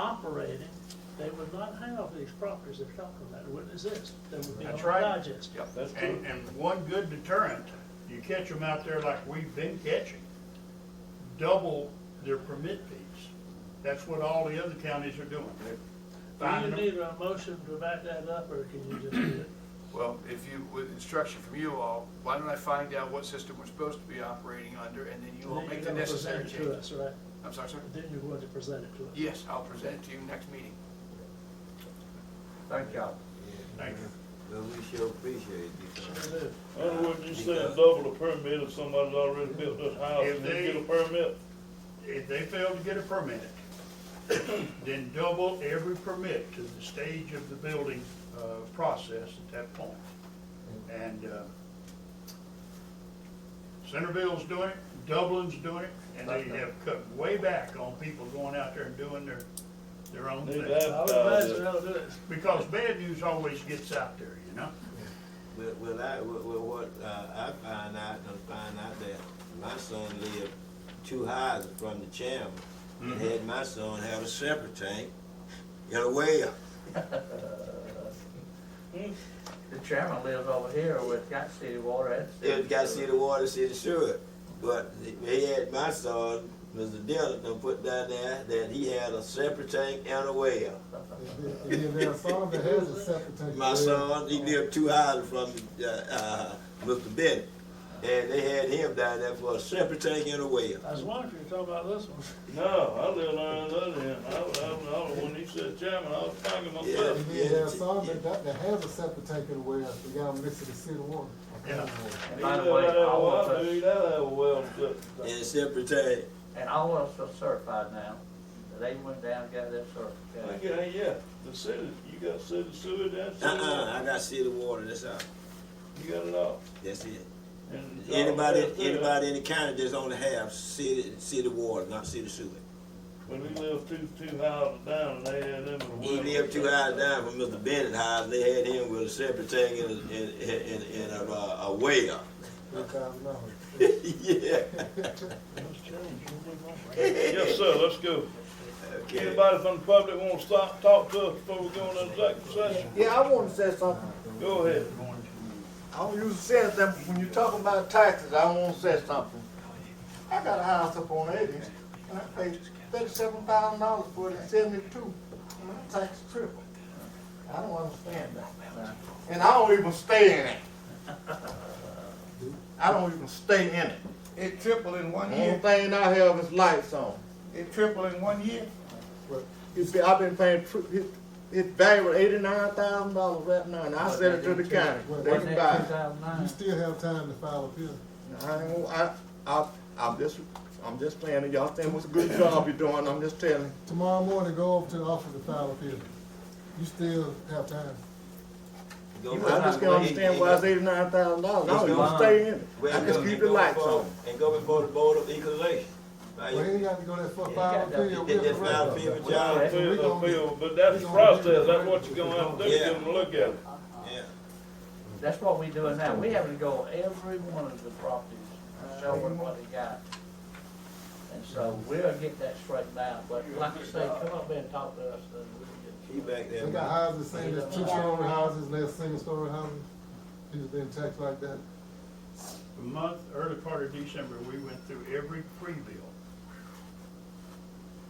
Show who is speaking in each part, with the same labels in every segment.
Speaker 1: operating, they would not have these properties they're talking about, it wouldn't exist. They would be all
Speaker 2: That's right.
Speaker 1: digest.
Speaker 3: Yep, that's true.
Speaker 2: And, and one good deterrent, you catch them out there like we've been catching, double their permit fees. That's what all the other counties are doing. They're
Speaker 1: Do you
Speaker 2: finding them.
Speaker 1: need a motion to back that up, or can you just do it?
Speaker 3: Well, if you, with instruction from you all, why don't I find out what system we're supposed to be operating under, and then you all
Speaker 1: Then
Speaker 3: make the
Speaker 1: you're gonna
Speaker 3: necessary
Speaker 1: present it to
Speaker 3: changes?
Speaker 1: us, Right,
Speaker 3: I'm sorry, sir?
Speaker 1: then you're going to present it to us.
Speaker 3: Yes, I'll present it to you next meeting.
Speaker 4: Thank y'all.
Speaker 2: Thank you.
Speaker 4: But we sure appreciate you. sir.
Speaker 1: Sure do.
Speaker 5: In other words, you said double the permit if somebody's already built this house
Speaker 2: If
Speaker 5: and they
Speaker 2: they-
Speaker 5: get a permit.
Speaker 2: If they fail to get a permit, then double every permit to the stage of the building, uh, process at that point. And, uh, Centerville's doing it, Dublin's doing it, and they have cut way back on people going out there and doing their, their own
Speaker 5: They've
Speaker 2: thing.
Speaker 1: I would imagine they'll do it.
Speaker 2: Because bad news always gets out there, you know?
Speaker 4: Well, well, I, well, well, what, uh, I find out, I find out that my son lived two houses from the chairman. And had my son have a separate tank, got a well.
Speaker 6: Uh, The chairman lives over here with got city water and.
Speaker 4: It got city water, city sewer. But he had my son, Mr. Dillon, done put down there that he had a separate tank and a well.
Speaker 7: If if their son that has a septic tank.
Speaker 4: My son, he lived two houses from uh, uh, Mr. Bennett, and they had him down there for a separate tank and a well.
Speaker 1: I was wondering if you were talking about this one.
Speaker 5: No, I live on the other end. I, was- I, was- I, was- when he said chairman, I was talking myself.
Speaker 7: If their son that, that- that has a septic tank in the well, we got him mixed with the city water.
Speaker 2: Yeah.
Speaker 6: And
Speaker 5: He
Speaker 6: by
Speaker 5: live
Speaker 6: the way,
Speaker 5: out there,
Speaker 6: all of
Speaker 5: well, I do, he
Speaker 6: us,
Speaker 5: does have a well, but-
Speaker 4: And a separate tank.
Speaker 6: and all of us are certified now. They went down and got that
Speaker 5: I
Speaker 6: certification.
Speaker 5: think, it ain't- yeah, the city, you got city sewer down, city,
Speaker 4: Uh-uh, I
Speaker 5: water.
Speaker 4: got city water, that's all.
Speaker 5: you got it all.
Speaker 4: That's it.
Speaker 5: And uh, it's all
Speaker 4: Anybody,
Speaker 5: built there.
Speaker 4: anybody in the county just only have city, city water, not city sewer.
Speaker 5: When we lived two, two houses down and they had them in the well.
Speaker 4: He lived two houses down from Mr. Bennett's house, they had him with a separate tank and, a- and, and, and a, uh, a well.
Speaker 7: Three thousand dollars.
Speaker 4: Yeah,
Speaker 5: Yes, sir, let's go.
Speaker 4: okay.
Speaker 5: Anybody from the public want to stop, talk to us before we go into executive session?
Speaker 8: Yeah, I want to say something.
Speaker 5: Go ahead.
Speaker 8: I don't usually say it, but when you're talking about taxes, I want to say something. I got a house up on eighty, and I paid thirty-seven thousand dollars for it in seventy-two, and my tax tripled. I don't understand that. And I don't even stay in it. I don't even stay in it.
Speaker 9: It tripled in one
Speaker 8: Only
Speaker 9: year.
Speaker 8: thing I have is lights on.
Speaker 9: It tripled in one year.
Speaker 8: But You see, I've been paying, tri- it, it valued eighty-nine thousand dollars right now, and I sent it to the county. They
Speaker 7: Wasn't
Speaker 8: can
Speaker 6: Wasn't
Speaker 8: buy
Speaker 6: that
Speaker 8: it.
Speaker 6: two thousand
Speaker 7: You
Speaker 6: nine?
Speaker 7: still have time to file appeal.
Speaker 8: I, ain't gonna- I, I, I'm just, I'm just saying, y'all saying what's a good job you're doing, I'm just telling.
Speaker 7: Tomorrow morning, go over to the office to file appeal. You still have time.
Speaker 4: Go
Speaker 8: I
Speaker 4: find
Speaker 8: just
Speaker 4: out
Speaker 8: can't
Speaker 4: where he-
Speaker 8: understand
Speaker 4: he
Speaker 8: why
Speaker 4: go.
Speaker 8: it's eighty-nine thousand dollars, I
Speaker 4: It's
Speaker 8: don't even
Speaker 4: gone.
Speaker 8: stay in it,
Speaker 4: Well,
Speaker 8: I just
Speaker 4: go-
Speaker 8: keep the
Speaker 4: go
Speaker 8: lights
Speaker 9: uh,
Speaker 4: before-
Speaker 8: on.
Speaker 4: And go before the board of equalization. Now,
Speaker 7: Well,
Speaker 4: you-
Speaker 7: ain't got to go there for
Speaker 6: Yeah,
Speaker 7: file
Speaker 6: you got
Speaker 7: appeal.
Speaker 4: that-
Speaker 7: We'll
Speaker 4: that
Speaker 7: correct
Speaker 4: file
Speaker 7: it.
Speaker 4: appeal,
Speaker 7: Well,
Speaker 4: John.
Speaker 5: Bill,
Speaker 7: we gonna-
Speaker 5: Bill, but that's the process, that's what you're gonna have to do,
Speaker 4: Yeah.
Speaker 5: give them a look at it.
Speaker 4: Yeah.
Speaker 6: That's what we doing now. We having to go every one of the properties and show them what they got. And so we'll get that straightened out, but like I say, come up there and talk to us and
Speaker 4: He
Speaker 6: we'll get.
Speaker 4: back there.
Speaker 7: They got houses, saying there's two-story houses, and there's single-story houses. People been taxed like that.
Speaker 2: The month, early part of December, we went through every free bill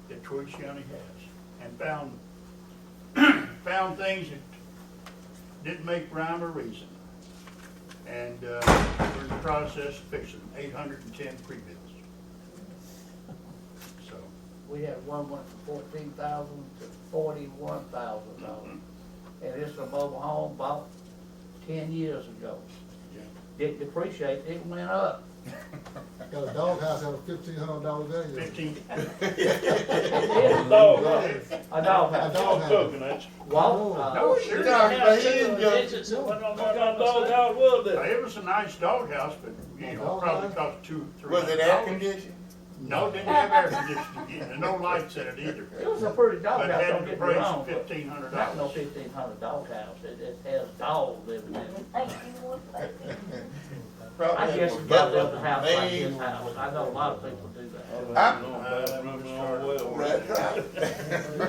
Speaker 2: that Troy County has and found, found things that didn't make rhyme or reason. And, uh, we're in the process of fixing eight hundred and ten free bills. So,
Speaker 6: We had one went from fourteen thousand to forty-one thousand dollars. And it's a mobile home bought ten years ago.
Speaker 2: yeah.
Speaker 6: Didn't depreciate, it went up.
Speaker 7: Got a doghouse, have a fifteen hundred dollar value.
Speaker 2: Fifteen,
Speaker 6: It did.
Speaker 5: Dog,
Speaker 6: A dog
Speaker 7: A
Speaker 6: house.
Speaker 7: dog
Speaker 5: dog
Speaker 7: house.
Speaker 5: cooking, that's,
Speaker 6: Walt, uh,
Speaker 9: Oh,
Speaker 2: no, sure.
Speaker 1: Now, single digits, it went on
Speaker 5: what kind
Speaker 1: my
Speaker 5: of dog
Speaker 1: side.
Speaker 5: house was
Speaker 2: Now,
Speaker 5: that?
Speaker 2: It was a nice doghouse, but, you know, probably cost two, three
Speaker 9: uh, Was
Speaker 2: hundred
Speaker 9: it air
Speaker 2: dollars.
Speaker 9: conditioned?
Speaker 2: No, it didn't have air conditioning, in it, and no lights in it either.
Speaker 6: it was a pretty
Speaker 2: But
Speaker 6: dog house,
Speaker 2: had
Speaker 6: don't
Speaker 2: to
Speaker 6: get me
Speaker 2: raise
Speaker 6: wrong, but
Speaker 2: fifteen hundred
Speaker 6: not no
Speaker 2: dollars.
Speaker 6: fifteen hundred dog house. It, it has dogs living in it.
Speaker 9: Probably
Speaker 6: I guess
Speaker 9: was
Speaker 6: it got the house like
Speaker 9: made.
Speaker 6: his house. I know a lot of people do that.
Speaker 5: I don't know, man, I remember it all well.
Speaker 9: Right.